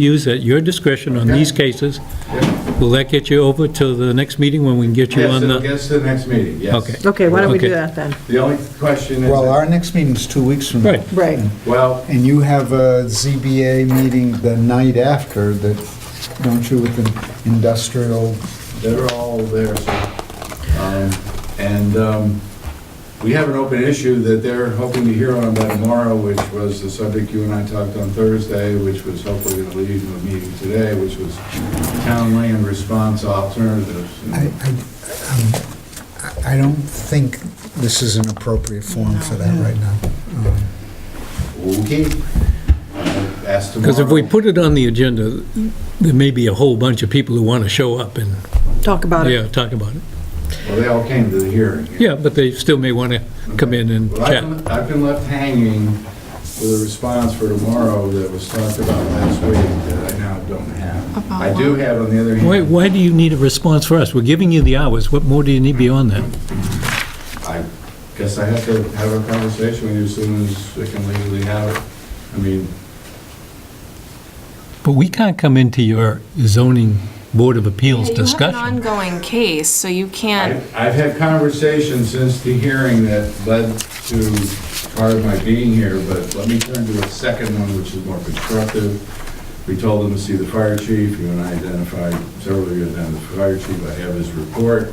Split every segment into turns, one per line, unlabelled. use at your discretion on these cases. Will that get you over to the next meeting when we can get you
Yes,
on
it'll
the...
get us to the next meeting, yes.
Okay.
Okay, why don't we do
Okay.
that then?
The only question is,
Well,
that-
our next meeting's two weeks from now.
Right.
Right.
well,
And you have a ZBA meeting the night after that, don't you, with an industrial,
they're all there, so, um, and um, we have an open issue that they're hoping to hear on by tomorrow, which was the subject you and I talked on Thursday, which was hopefully going to lead to a meeting today, which was town land response alternatives.
I, I, um, I- I don't think this is an appropriate forum for that right now. Um,
Okay. I'll Ask Uh, tomorrow.
Because if we put it on the agenda, there may be a whole bunch of people who want to show up and,
Talk about it.
yeah, talk about it.
Well, they all came to the hearing.
Yeah, but they still may want to come in and
Well, I've
chat.
been- I've been left hanging with a response for tomorrow that was talked about last week that I now don't have. I do have, on the other
Why,
hand,
why do you need a response for us? We're giving you the hours, what more do you need beyond that?
I guess I have to have a conversation with you as soon as I can legally have it. I mean,
But we can't come into your zoning board of appeals
You have an
discussion.
ongoing case, so you
I-
can't,
I've had conversations since the hearing that led to part of my being here, but let me turn to a second one, which is more constructive. We told them to see the fire chief, you and I identified, several of you identified the fire chief, I have his report,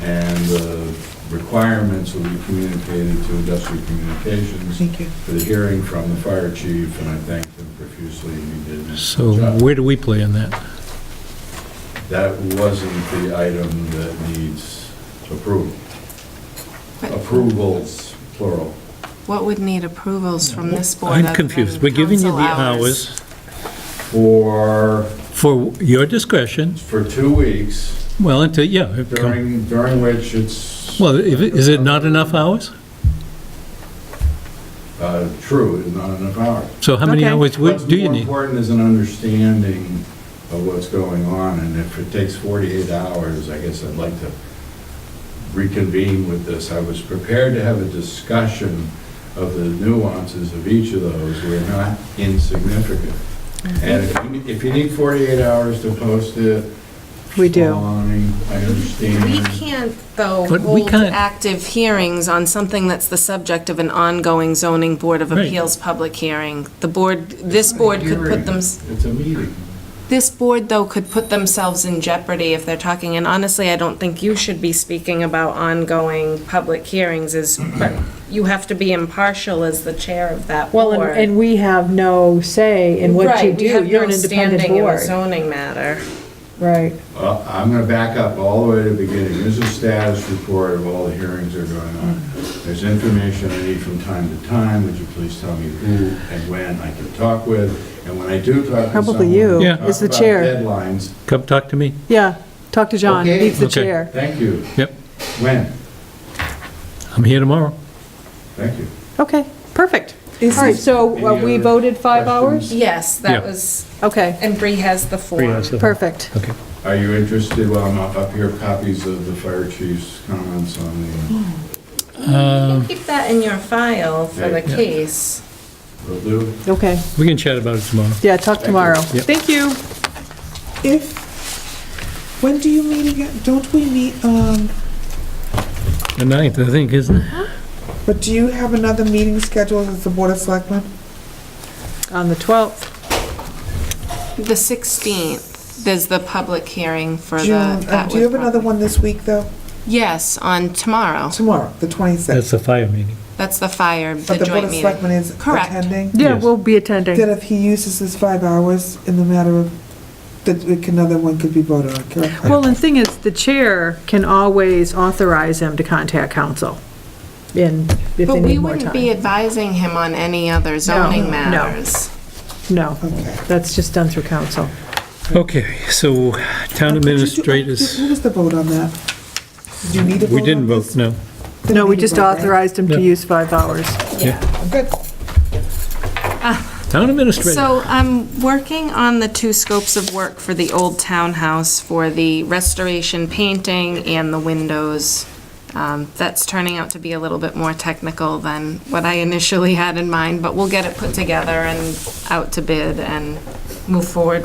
and the requirements will be communicated to industrial communications for the hearing from the fire chief, and I thanked him profusely, and he did. an excellent
So
job.
where do we play in that?
That wasn't the item that needs approval.
But-
Approvals, plural.
what would need approvals from this board?
I'm
other
confused.
than
We're giving you the
council
hours
For,
for your discretion,
for two weeks,
well, until, yeah. it come-
during, during which it's.
Well, if it- is it not enough hours?
Uh, True, it's not enough hours.
So how many
Okay.
hours would- do you
What's
need?
more important is an understanding of what's going on, and if it takes 48 hours, I guess I'd like to reconvene with this. I was prepared to have a discussion of the nuances of each of those, we're not insignificant.
Mm-hmm.
And if you- if you need 48 hours to post it.
We do.
fine, I
We
understand.
can't, though,
But we
hold
can't-
active hearings on something that's the subject of an ongoing zoning board of
Right.
appeals public hearing. The board, this board could put them,
It's a meeting.
this board, though, could put themselves in jeopardy if they're talking, and honestly, I don't think you should be speaking about ongoing public hearings as, you have to be impartial as the chair of that board.
Well, and- and we have no say in what you
Right, we
do.
have
You're
no
an independent
standing in a
board.
zoning matter.
Right.
Well, I'm going to back up all the way to the beginning. There's a status report of all the hearings that are going on. There's information I need from time to time. Would you please tell me who and when I can talk with? And when I do talk to someone...
Probably you,
Yeah.
talk
as the
about
chair.
Deadlines.
Come talk to me.
Yeah, talk to John.
Okay.
He's the
Okay.
chair.
Thank you.
Yep,
When?
I'm here tomorrow.
Thank you.
Okay, perfect. All right, so
Any
uh, we
other
voted five hours?
questions?
Yes, that
Yeah.
was,
Okay,
and Bree has the form.
perfect.
Okay.
Are you interested, while I'm up up here, copies of the fire chief's comments on the...
You can keep that in your file for the
Yeah.
case.
Will do?
Okay,
We can chat about it tomorrow.
yeah, talk tomorrow.
Yep.
Thank you.
If, when do you meet again? Don't we meet, um,
The ninth, I think, isn't it?
but do you have another meeting scheduled with the Board of Selectmen?
On the 12th,
The 16th, there's the public hearing for the.
June, uh,
that
do you have
was-
another one this week, though?
Yes, on tomorrow.
Tomorrow, the 26th.
That's the fire meeting.
That's the fire, the
But the Board
joint
of
meeting.
Selectmen is
Correct.
attending?
yeah,
Yes.
we'll be attending.
That if he uses his five hours in the matter of, that it can- another one could be voted on, correct?
Well, and thing is, the chair can always authorize him to contact council in, if they
But we
need more
wouldn't be
time.
advising him on any other zoning
no.
matters.
No,
Okay.
that's just done through council.
Okay, so town
Did you do-
administrators,
Who was the vote on that? Did you need a vote on
we didn't vote,
this?
no.
Didn't
No, we
need a
just
vote, right?
authorized him to
Yeah.
use five hours.
Good.
Town administrator,
So I'm working on the two scopes of work for the old townhouse for the restoration painting and the windows. Um, That's turning out to be a little bit more technical than what I initially had in mind, but we'll get it put together and out to bid and move forward